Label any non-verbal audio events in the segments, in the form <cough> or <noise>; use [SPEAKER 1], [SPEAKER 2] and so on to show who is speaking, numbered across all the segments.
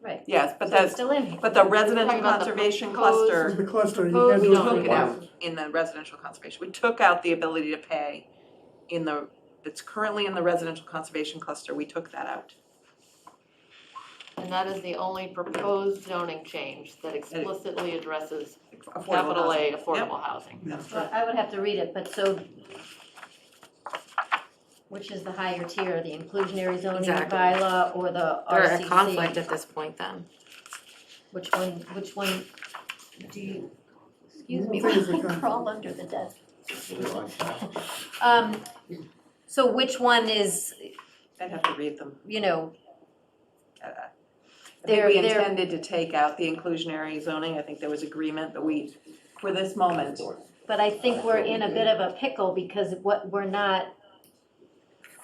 [SPEAKER 1] Right,
[SPEAKER 2] yes, but
[SPEAKER 1] so it's
[SPEAKER 2] that's,
[SPEAKER 1] still in here.
[SPEAKER 2] but the residential
[SPEAKER 1] Talking about the
[SPEAKER 2] conservation
[SPEAKER 1] proposed-
[SPEAKER 2] cluster,
[SPEAKER 3] The cluster, you
[SPEAKER 1] Proposed
[SPEAKER 3] had
[SPEAKER 2] we
[SPEAKER 3] those
[SPEAKER 2] took it out
[SPEAKER 3] ones.
[SPEAKER 2] in the residential conservation, we took out the ability to pay in the, that's currently in the residential conservation cluster, we took that out.
[SPEAKER 1] And that is the only proposed zoning change that explicitly addresses
[SPEAKER 2] Affordable
[SPEAKER 1] capital
[SPEAKER 2] housing.
[SPEAKER 1] A affordable housing.
[SPEAKER 2] That's
[SPEAKER 4] Well,
[SPEAKER 2] right.
[SPEAKER 4] I would have to read it, but so, which is the higher tier, the inclusionary zoning
[SPEAKER 5] Exactly.
[SPEAKER 4] bylaw or the
[SPEAKER 5] They're at conflict
[SPEAKER 4] RCC?
[SPEAKER 5] at this point then.
[SPEAKER 4] Which one, which one do you, excuse me, <laughs>
[SPEAKER 3] Things are
[SPEAKER 4] we're all
[SPEAKER 3] conflict.
[SPEAKER 4] under the desk. Um, so which one is,
[SPEAKER 2] I'd have to read them.
[SPEAKER 4] you know,
[SPEAKER 2] Uh, I think
[SPEAKER 4] They're-
[SPEAKER 2] we
[SPEAKER 4] they're-
[SPEAKER 2] intended to take out the inclusionary zoning, I think there was agreement, but we, for this moment,
[SPEAKER 4] but I think we're in a bit of a pickle because what, we're not,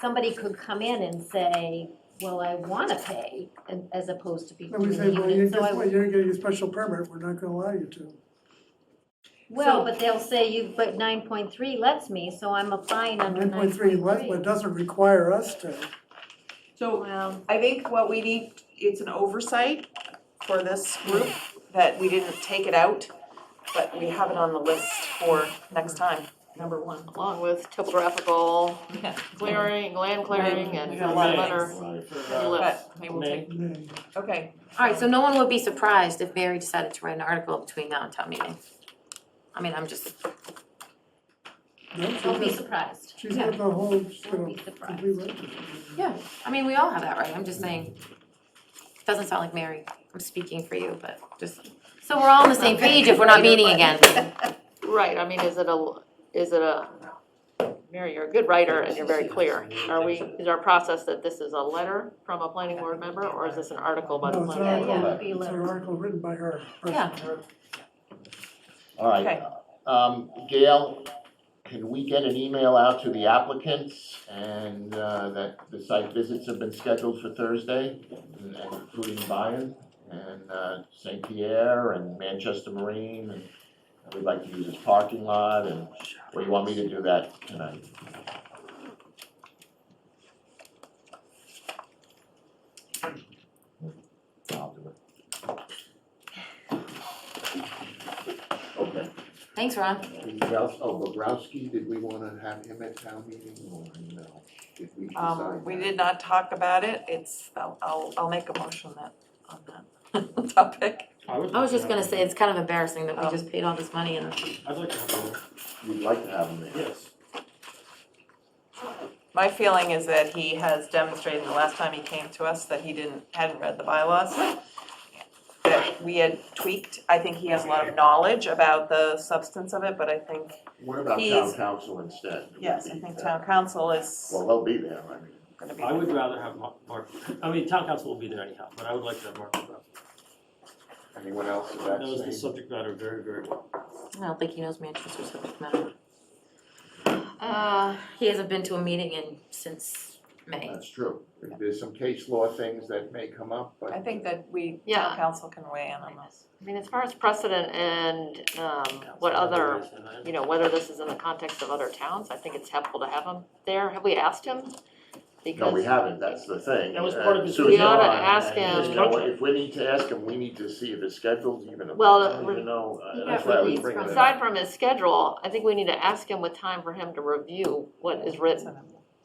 [SPEAKER 4] somebody could come in and say, well, I wanna pay, and- as opposed to be
[SPEAKER 3] And
[SPEAKER 4] doing
[SPEAKER 3] we
[SPEAKER 4] the
[SPEAKER 3] say, well, you,
[SPEAKER 4] unit, so I
[SPEAKER 3] guess what, you're getting a special permit, we're not gonna allow you to.
[SPEAKER 4] Well, but they'll say you, but nine point three lets me, so I'm applying under
[SPEAKER 3] Nine
[SPEAKER 4] nine
[SPEAKER 3] point three, but doesn't require us to.
[SPEAKER 2] so
[SPEAKER 1] Well,
[SPEAKER 2] I think what we need, it's an oversight for this group, that we didn't take it out, but we have it on the list for next time, number one.
[SPEAKER 1] along with topographical clearing, land clearing and
[SPEAKER 2] We
[SPEAKER 1] a
[SPEAKER 2] got
[SPEAKER 1] lot of
[SPEAKER 2] lot
[SPEAKER 1] other.
[SPEAKER 2] But maybe we'll
[SPEAKER 6] May.
[SPEAKER 2] take,
[SPEAKER 3] Nay.
[SPEAKER 2] okay,
[SPEAKER 5] Alright, so no one would be surprised if Mary decided to write an article between now and town meeting. I mean, I'm just,
[SPEAKER 3] No, she's
[SPEAKER 4] Don't be
[SPEAKER 3] got,
[SPEAKER 4] surprised.
[SPEAKER 3] she's got the whole, she's got
[SPEAKER 4] Don't
[SPEAKER 3] a
[SPEAKER 4] be surprised.
[SPEAKER 3] complete list.
[SPEAKER 5] yeah, I mean, we all have that right, I'm just saying. Doesn't sound like Mary, I'm speaking for you, but just, so we're all on the same page if we're not meeting again.
[SPEAKER 1] Right, I mean, is it a, is it a, Mary, you're a good writer and you're very clear. Are we, is our process that this is a letter from a planning board member, or is this an article by the
[SPEAKER 3] No, it's
[SPEAKER 1] planning?
[SPEAKER 3] an
[SPEAKER 4] Yeah,
[SPEAKER 1] board?
[SPEAKER 4] yeah,
[SPEAKER 6] yeah.
[SPEAKER 4] it'd be
[SPEAKER 3] uh, It's an
[SPEAKER 4] low.
[SPEAKER 3] article written by her.
[SPEAKER 5] Yeah.
[SPEAKER 6] All
[SPEAKER 2] Okay.
[SPEAKER 6] right, um, Gail, can we get an email out to the applicants and, uh, that the site visits have been scheduled for Thursday, including Byron and, uh, St. Pierre and Manchester Marine and we'd like to use this parking lot and, or you want me to do that tonight? I'll do it. Okay.
[SPEAKER 5] Thanks, Ron.
[SPEAKER 6] Bobrowski, oh, Bobrowski, did we wanna have him at town meeting or no? Did we
[SPEAKER 2] um,
[SPEAKER 6] decide
[SPEAKER 2] we
[SPEAKER 6] that?
[SPEAKER 2] did not talk about it, it's, I'll, I'll, I'll make a motion that, on that <laughs> topic.
[SPEAKER 5] I was just gonna say, it's kind of embarrassing that we
[SPEAKER 2] Oh.
[SPEAKER 5] just paid all this money and
[SPEAKER 6] I'd like to have him. You'd like to have him there? Yes.
[SPEAKER 2] My feeling is that he has demonstrated the last time he came to us that he didn't, hadn't read the bylaws. That we had tweaked, I think he has a lot of knowledge about the substance of it, but I think,
[SPEAKER 6] What about town
[SPEAKER 2] He's-
[SPEAKER 6] council instead? Would
[SPEAKER 2] yes, I
[SPEAKER 6] be
[SPEAKER 2] think
[SPEAKER 6] that-
[SPEAKER 2] town council is
[SPEAKER 6] Well, they'll be there, I mean.
[SPEAKER 2] gonna be.
[SPEAKER 7] I would rather have Mark, Mark, I mean, town council will be there anyhow, but I would like to have Mark Bobrowski.
[SPEAKER 6] Anyone else of that
[SPEAKER 7] Knows
[SPEAKER 6] same?
[SPEAKER 7] the subject matter very, very well.
[SPEAKER 5] I don't think he knows Manchester subject matter.
[SPEAKER 1] Uh,
[SPEAKER 5] He hasn't been to a meeting in, since May.
[SPEAKER 6] That's true. There's some case law things that may come up, but.
[SPEAKER 2] I think that we, town
[SPEAKER 1] Yeah.
[SPEAKER 2] council can weigh in on this.
[SPEAKER 1] I mean, as far as precedent and, um, what other, you know, whether this is in the context of other towns, I think it's helpful to have him there. Have we asked him?
[SPEAKER 6] No, we
[SPEAKER 1] Because,
[SPEAKER 6] haven't, that's the thing.
[SPEAKER 7] That was part of his-
[SPEAKER 6] Susan
[SPEAKER 7] We oughta
[SPEAKER 6] and I,
[SPEAKER 1] ask
[SPEAKER 6] and,
[SPEAKER 7] him.
[SPEAKER 6] You know, if we need to ask him, we need to see if his schedule's even,
[SPEAKER 1] Well,
[SPEAKER 6] I don't even know, uh,
[SPEAKER 4] Yeah,
[SPEAKER 6] that's why I was
[SPEAKER 4] release
[SPEAKER 6] bringing
[SPEAKER 4] from-
[SPEAKER 6] it up.
[SPEAKER 1] aside from his schedule, I think we need to ask him with time for him to review what is written,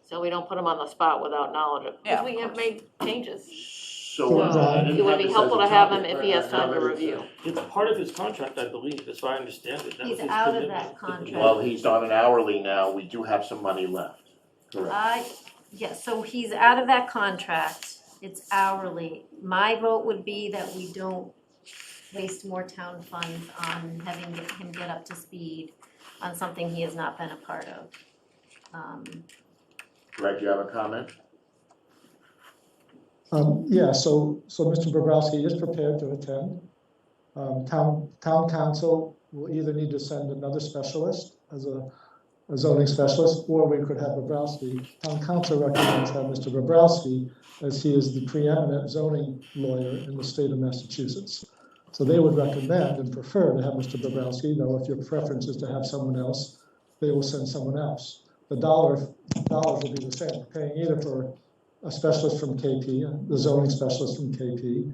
[SPEAKER 1] so we don't put him on the spot without knowledge of,
[SPEAKER 2] Yeah,
[SPEAKER 1] because
[SPEAKER 2] of
[SPEAKER 1] we have
[SPEAKER 2] course.
[SPEAKER 1] made changes.
[SPEAKER 6] So. uh,
[SPEAKER 1] So,
[SPEAKER 6] I didn't
[SPEAKER 1] It would
[SPEAKER 6] have
[SPEAKER 1] be
[SPEAKER 6] this
[SPEAKER 1] helpful
[SPEAKER 6] as
[SPEAKER 1] to
[SPEAKER 6] a
[SPEAKER 1] have him
[SPEAKER 6] topic,
[SPEAKER 1] if
[SPEAKER 6] but
[SPEAKER 1] he has
[SPEAKER 6] I
[SPEAKER 1] time
[SPEAKER 6] have
[SPEAKER 1] to
[SPEAKER 6] it as a-
[SPEAKER 1] review.
[SPEAKER 7] It's part of his contract, I believe, that's why I understand it. That was
[SPEAKER 4] He's
[SPEAKER 7] his
[SPEAKER 4] out of
[SPEAKER 7] commitment.
[SPEAKER 4] that contract.
[SPEAKER 6] Well, he's on an hourly now, we do have some money left. Correct.
[SPEAKER 4] I, yeah, so he's out of that contract, it's hourly. My vote would be that we don't waste more town funds on having him get up to speed on something he has not been a part of. Um,
[SPEAKER 6] Greg, you have a comment?
[SPEAKER 8] Um, yeah, so, so Mr. Bobrowski is prepared to attend. Um, town, town council will either need to send another specialist as a, a zoning specialist, or we could have Bobrowski. Town council recommends have Mr. Bobrowski, as he is the preeminent zoning lawyer in the state of Massachusetts. So they would recommend and prefer to have Mr. Bobrowski, though if your preference is to have someone else, they will send someone else. The dollar, dollars will be the same, paying either for a specialist from KP, the zoning specialist from KP,